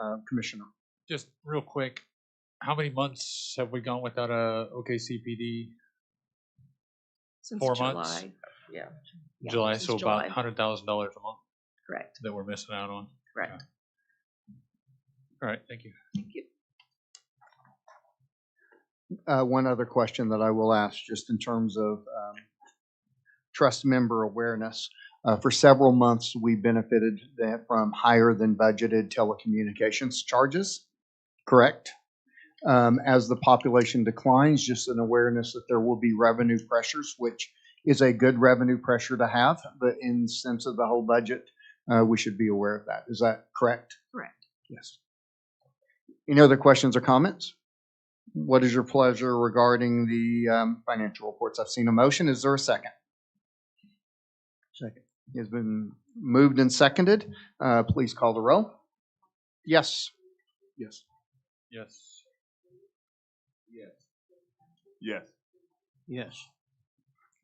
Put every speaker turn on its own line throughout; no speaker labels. uh, commissioner.
Just real quick, how many months have we gone without a OKCPD?
Since
Four
July.
months?
Yeah. Yeah,
July,
since
so about
July.
hundred thousand dollars a month
Correct,
that we're missing out on.
correct.
All right, thank you.
Thank you.
Uh, One other question that I will ask, just in terms of um, trust member awareness. Uh, For several months, we benefited that from higher than budgeted telecommunications charges, correct? Um, As the population declines, just an awareness that there will be revenue pressures, which is a good revenue pressure to have, but in sense of the whole budget, uh, we should be aware of that. Is that correct?
Correct.
Yes. Any other questions or comments? What is your pleasure regarding the um, financial reports? I've seen a motion. Is there a second? Second. Has been moved and seconded. Uh, Please call the roll. Yes. Yes.
Yes. Yes.
Yes.
Yes.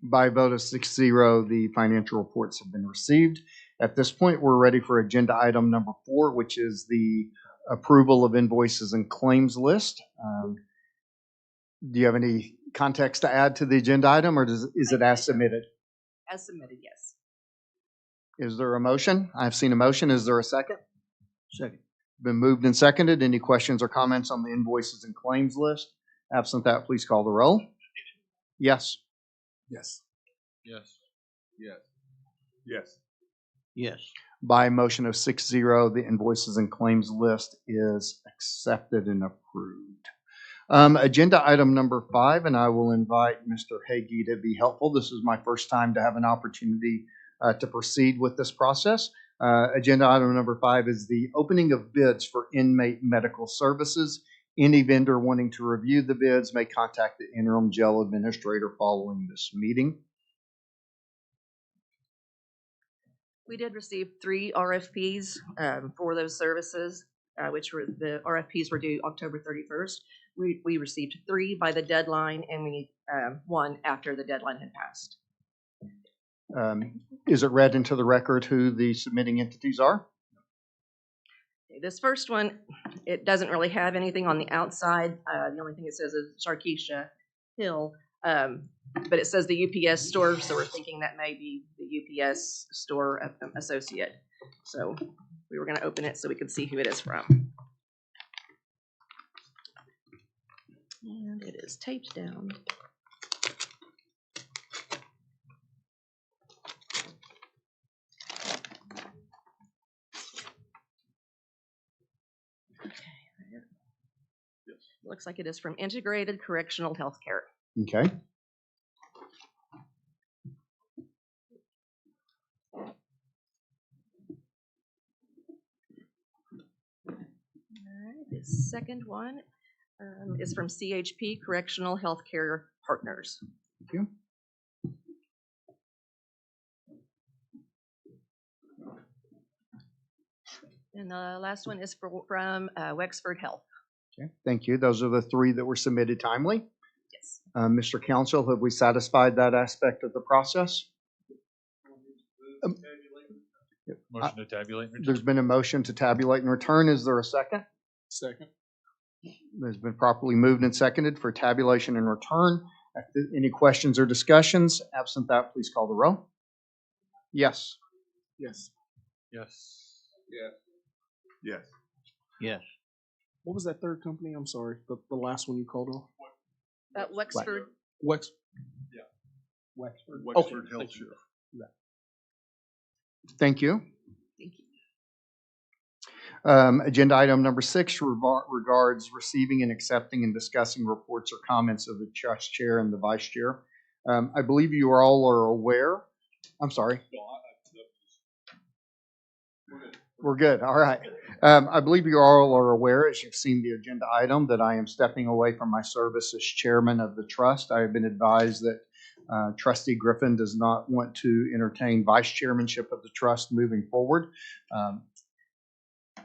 By a vote of six zero, the financial reports have been received. At this point, we're ready for agenda item number four, which is the approval of invoices and claims list. Um, Do you have any context to add to the agenda item, or does- is it as submitted?
As submitted, yes.
Is there a motion? I've seen a motion. Is there a second? Second. Been moved and seconded. Any questions or comments on the invoices and claims list? Absent that, please call the roll. Yes.
Yes.
Yes.
Yes. Yes.
By motion of six zero, the invoices and claims list is accepted and approved. Um, agenda item number five, and I will invite Mr. Hagee to be helpful. This is my first time to have an opportunity uh, to proceed with this process. Uh, agenda item number five is the opening of bids for inmate medical services. Any vendor wanting to review the bids may contact the interim jail administrator following this meeting.
We did receive three RFPs um, for those services, uh, which were, the RFPs were due October 31st. We, we received three by the deadline and we, um, one after the deadline had passed.
Um, is it read into the record who the submitting entities are?
This first one, it doesn't really have anything on the outside. Uh, The only thing it says is Sharkeisha Hill. um, But it says the UPS store, so we're thinking that may be the UPS store uh, um, associate. So we were going to open it so we could see who it is from. And it is taped down. Looks like it is from Integrated Correctional Healthcare.
Okay.
All right, the second one um, is from CHP Correctional Healthcare Partners.
Thank you.
And the last one is fro- from uh, Wexford Health.
Okay, Thank you. Those are the three that were submitted timely.
Yes.
Uh, Mr. Council, have we satisfied that aspect of the process? Um,
Motion to tabulate. Richard?
There's been a motion to tabulate and return. Is there a second?
Second.
It's been properly moved and seconded for tabulation and return. If there- Any questions or discussions? Absent that, please call the roll. Yes.
Yes.
Yes.
Yes.
What was that third company? I'm sorry, the, the last one you called on?
Uh, Wexford,
Wex.
Yeah.
Wexford.
Wexford Health Share.
Thank you.
thank you.
Um, Agenda item number six revar- regards receiving and accepting and discussing reports or comments of the trust chair and the vice chair. Um, I believe you are all are aware, I'm sorry. We're good, all right. Um, I believe you all are aware, as you've seen the agenda item, that I am stepping away from my service as chairman of the trust. I have been advised that uh, trustee Griffin does not want to entertain vice chairmanship of the trust moving forward. Um,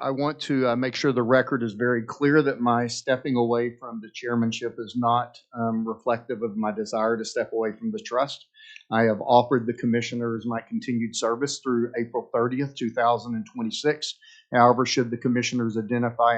I want to uh, make sure the record is very clear that my stepping away from the chairmanship is not um, reflective of my desire to step away from the trust. I have offered the commissioners my continued service through April thirtieth, two thousand and twenty-six. However, should the commissioners identify